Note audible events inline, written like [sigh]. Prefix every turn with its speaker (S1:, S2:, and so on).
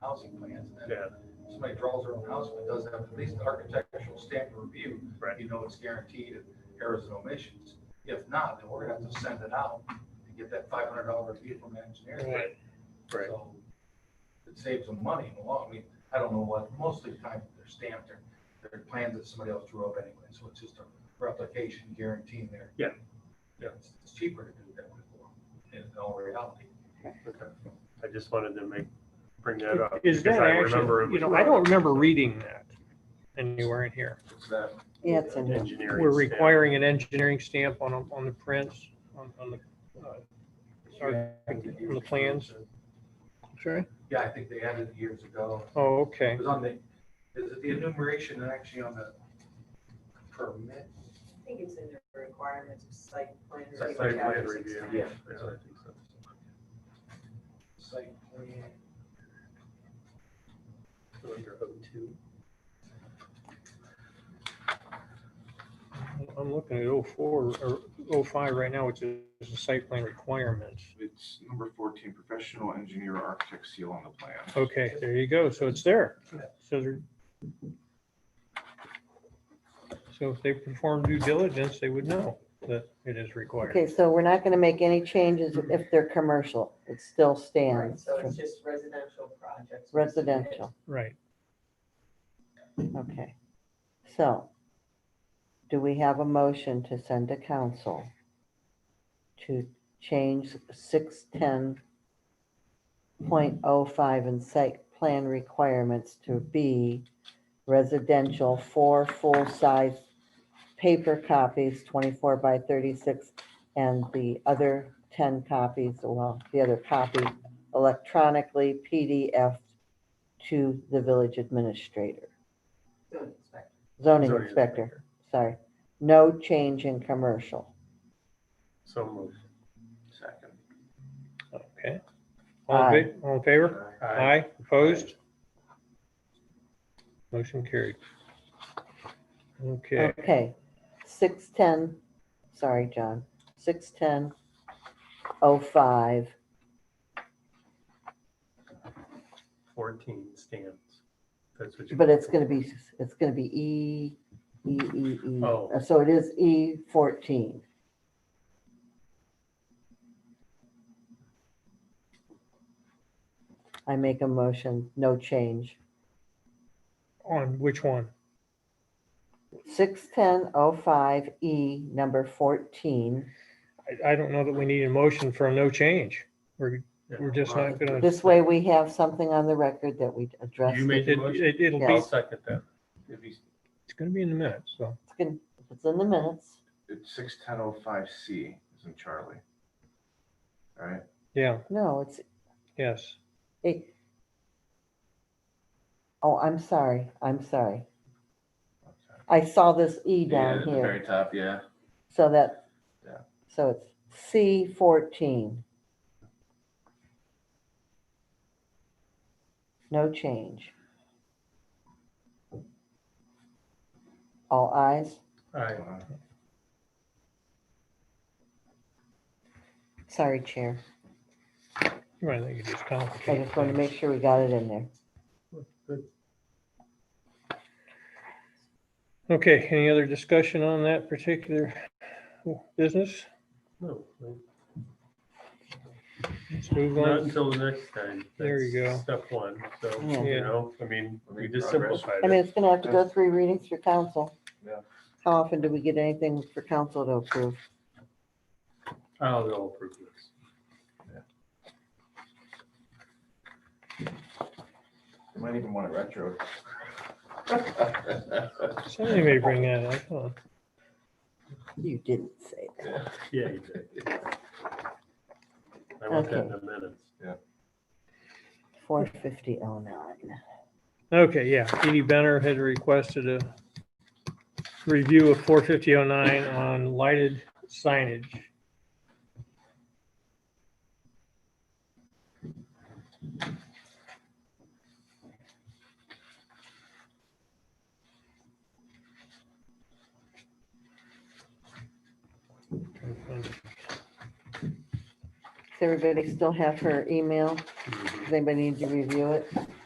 S1: housing plans, and then
S2: Yeah,
S1: somebody draws their own house, but does have at least an architectural stamp review.
S2: Right.
S1: You know it's guaranteed and errors and omissions. If not, then we're gonna have to send it out and get that five hundred dollar fee from an engineer.
S2: right, right.
S1: So It saves them money in the long, I mean, I don't know what, most of the time they're stamped, they're, they're plans that somebody else drew up anyway, so it's just a replication guaranteeing there.
S2: Yeah.
S1: Yeah, it's- it's cheaper to do that before, in all reality.
S2: I just wanted to make, bring that up.
S3: Is
S2: because
S3: that
S2: I remember it
S3: actually, you
S2: was
S3: know, I don't remember reading that anywhere in here.
S1: It's that,
S4: Yeah, it's in here.
S2: Engineering.
S3: We're
S2: standard.
S3: requiring an engineering stamp on, on the prints, on, on the, uh, sorry, on the plans. Sorry?
S1: yeah, I think they added it years ago.
S3: Oh,
S1: It
S3: okay.
S1: was on the, is it the enumeration actually on the permit?
S5: I think it's in the requirements of site plan.
S1: Site
S2: Site
S5: review,
S2: plan
S5: chapter
S2: review.
S5: 16.
S1: Yeah.
S2: I think so.
S1: Site plan.
S2: So Under O two.
S3: I'm looking at oh four, or oh five right now, which is the site plan requirements.
S6: It's number fourteen, professional engineer architect seal on the plan.
S3: Okay, there you go. So it's there. So they're. So if they perform due diligence, they would know that it is required.
S4: Okay, so we're not gonna make any changes if they're commercial. It still
S5: Right,
S4: stands
S5: so
S4: for
S5: it's just residential projects.
S4: residential.
S3: Right.
S4: Okay. So do we have a motion to send to council to change six ten point oh five and site plan requirements to be residential for full-size paper copies, twenty-four by thirty-six, and the other ten copies, well, the other copy electronically PDF to the village administrator,
S5: Building inspector.
S4: zoning inspector, sorry. No change in commercial.
S2: So moved.
S6: Second.
S3: Okay. All in, fa- all in favor? Aye, opposed? Motion carried. Okay,
S4: Okay, six ten, sorry, John, six ten oh five,
S2: Fourteen stands. That's what you.
S4: but it's gonna be, it's gonna be E, E, E, E.
S2: Oh.
S4: Uh, So it is E fourteen. I make a motion, no change,
S3: on which one?
S4: six ten oh five E, number fourteen.
S3: I, I don't know that we need a motion for a no change. We're, we're just not gonna,
S4: This way we have something on the record that we addressed.
S2: You
S4: it.
S2: made the
S3: it,
S2: motion.
S3: it- it'll be,
S2: I'll
S4: Yes.
S2: second that.
S6: If he's,
S3: it's gonna be in the minutes, so.
S4: It's gonna- It's in the minutes.
S6: it's six ten oh five C, isn't Charlie? All right,
S3: Yeah,
S4: No, it's
S3: yes.
S4: It, oh, I'm sorry, I'm sorry.
S6: okay.
S4: I saw this E
S6: Yeah,
S4: down
S6: at the Very
S4: here,
S6: top, yeah.
S4: so that,
S6: Yeah.
S4: so it's C fourteen. No change. All eyes.
S2: Aye.
S6: Wow.
S4: sorry, Chair,
S3: I think you just
S4: I
S3: complicated.
S4: just wanted to make sure we got it in there.
S3: Okay, any other discussion on that particular business?
S2: No,
S3: Let's move
S2: not
S3: on.
S2: until the next time.
S3: There you
S2: That's Step one, so,
S4: Yeah.
S2: you know, I mean, we just
S6: Progress.
S2: simplified
S4: I mean,
S2: it.
S4: it's gonna have to go three readings for council.
S6: Yeah.
S4: How often do we get anything for council to approve?
S2: I'll go approve this.
S6: You Might even want it retro. [laughs]
S3: Somebody may bring that up. huh?
S4: You didn't say that.
S2: Yeah, you did. I want that in a minute.
S4: Four fifty oh nine.
S3: Okay, yeah, Edie Benner had requested a review of four fifty oh nine on lighted signage.
S2: Mm-hmm.
S4: Does everybody still have her email? Does anybody need to review it?